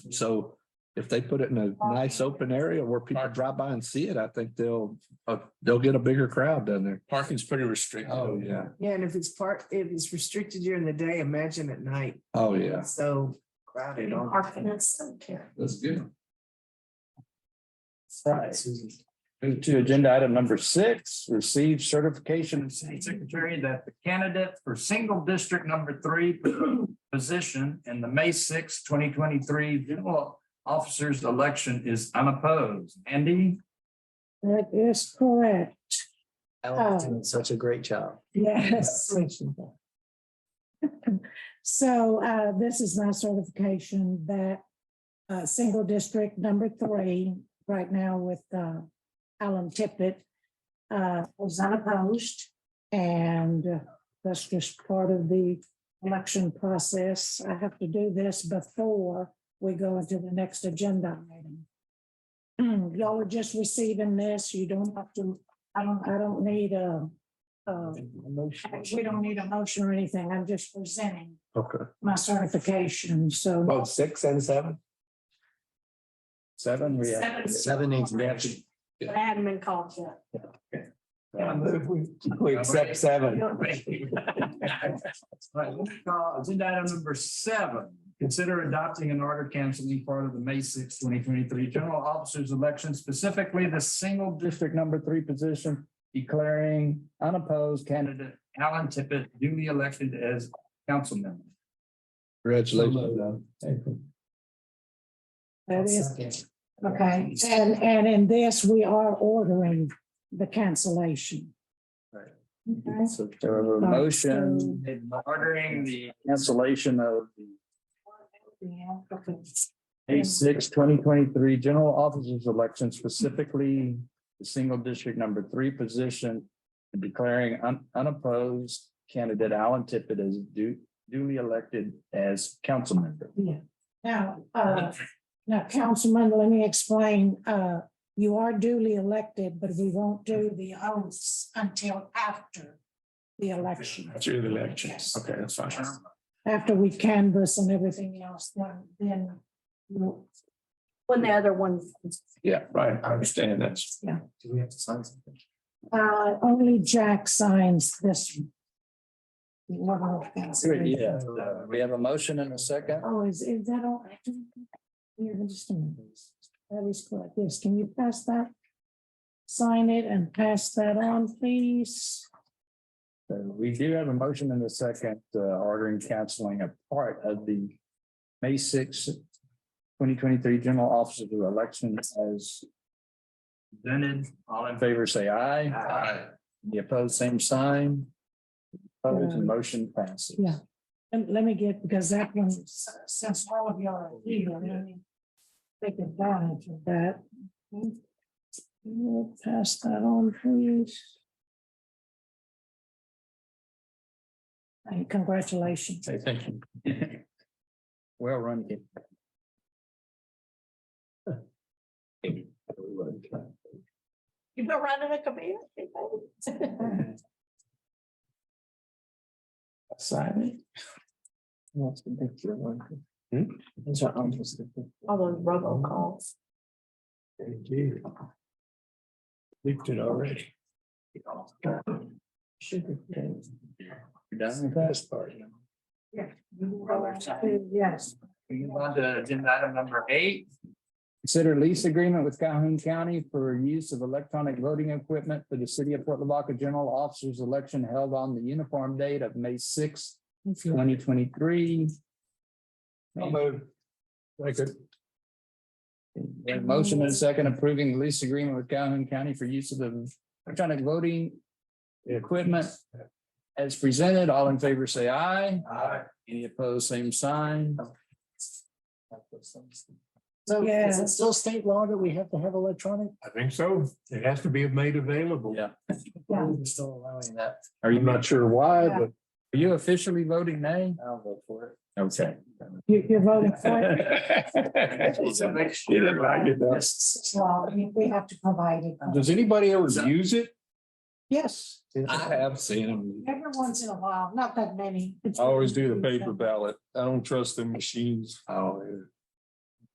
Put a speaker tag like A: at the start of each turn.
A: So if they put it in a nice open area where people drive by and see it, I think they'll, uh, they'll get a bigger crowd down there.
B: Parking's pretty restricted.
A: Oh, yeah.
C: Yeah, and if it's part, if it's restricted during the day, imagine at night.
A: Oh, yeah.
C: It's So crowded on.
A: That's good.
D: Right. Move to agenda item number six, receive certification of city secretary that the candidate for single district number three position in the May sixth, twenty twenty-three general officers election is unopposed. Andy?
E: That is correct,
C: Ellen's
E: Oh.
C: doing such a great job.
E: yes. So uh, this is my certification that uh, single district number three, right now with uh, Alan Tippett, uh, was unopposed. And uh, that's just part of the election process. I have to do this before we go into the next agenda item. Hmm, Y'all are just receiving this. You don't have to, I don't, I don't need a a We don't need a motion or anything. I'm just presenting
A: Okay.
E: my certification, so.
B: Both six and seven?
D: Seven, we have.
B: Seven needs matching.
E: Admin calls it.
B: We accept seven.
D: Right, we'll call Agenda item number seven, consider adopting an order canceling part of the May sixth, twenty twenty-three general officers election, specifically the single district number three position, declaring unopposed candidate Alan Tippett duly elected as council member.
A: Congratulations.
E: That is, okay, and, and in this, we are ordering the cancellation.
D: Right.
E: Okay.
D: So there are
E: a motion-
D: Ordering the cancellation of the
E: Yeah.
D: May 6, 2023 general officers election, specifically the single district number three position, and declaring un- unopposed candidate Alan Tippett as du- duly elected as council member.
E: Now, uh, now, Councilman, let me explain, uh, you are duly elected, but we won't do the oaths until after the election.
B: Through the elections.
E: Yes.
B: Okay, that's fine.
E: After we canvass and everything else, then, then we'll-
F: When the other one,
B: Yeah, right. I understand that.
C: Do we have to sign something?
E: Uh, only Jack signs this. one. The order of cancellation.
D: Yeah, Uh, we have a motion and a second.
E: Oh, is, is that all? Here, just a minute. That is correct. Yes, can you pass that? Sign it and pass that on, please.
D: So We do have a motion and a second, uh, ordering canceling a part of the May 6, 2023 general officers election as presented. All in favor, say aye.
B: Aye.
D: The opposed, same sign. Opposed, the
E: Um,
D: motion passes.
E: yeah. And let me get, because that one, s- since all of y'all are here, let me take advantage of that. We'll pass that on, please. And congratulations.
B: Okay, thank you.
D: Well run. kid.
F: you've been running a committee.
C: Sign it.
B: Hmm?
C: Those are almost the big-
F: All those robocalls.
B: Leaked it already.
C: Sugar cane.
D: You're done.
B: Best part.
E: Yes.
D: We move on to agenda item number eight. Consider lease agreement with Calhoun County for use of electronic voting equipment for the city of Port Lavaca general officers election held on the uniform date of May 6, twenty twenty-three.
B: move. Like it.
D: Motion and a second approving the lease agreement with Calhoun County for use of the electronic voting equipment. As presented, all in favor, say aye.
B: Aye.
D: Any opposed, same sign.
C: So is
E: Yeah.
C: it still state law that we have to have electronic?
B: I think so. It has to be made available.
D: Yeah.
E: Yeah.
C: We're still allowing that.
D: Are you,
B: I'm
D: are
B: not sure why, but.
D: you officially voting nay?
C: I'll vote for it.
D: Okay.
E: You- You're voting for it.
B: She didn't like it though.
E: It's law. I mean, We have to provide it.
B: Does anybody ever use it?
E: Yes,
A: I have seen them.
E: every once in a while, not that many.
G: I always do the paper ballot. I don't trust the machines.
A: Oh,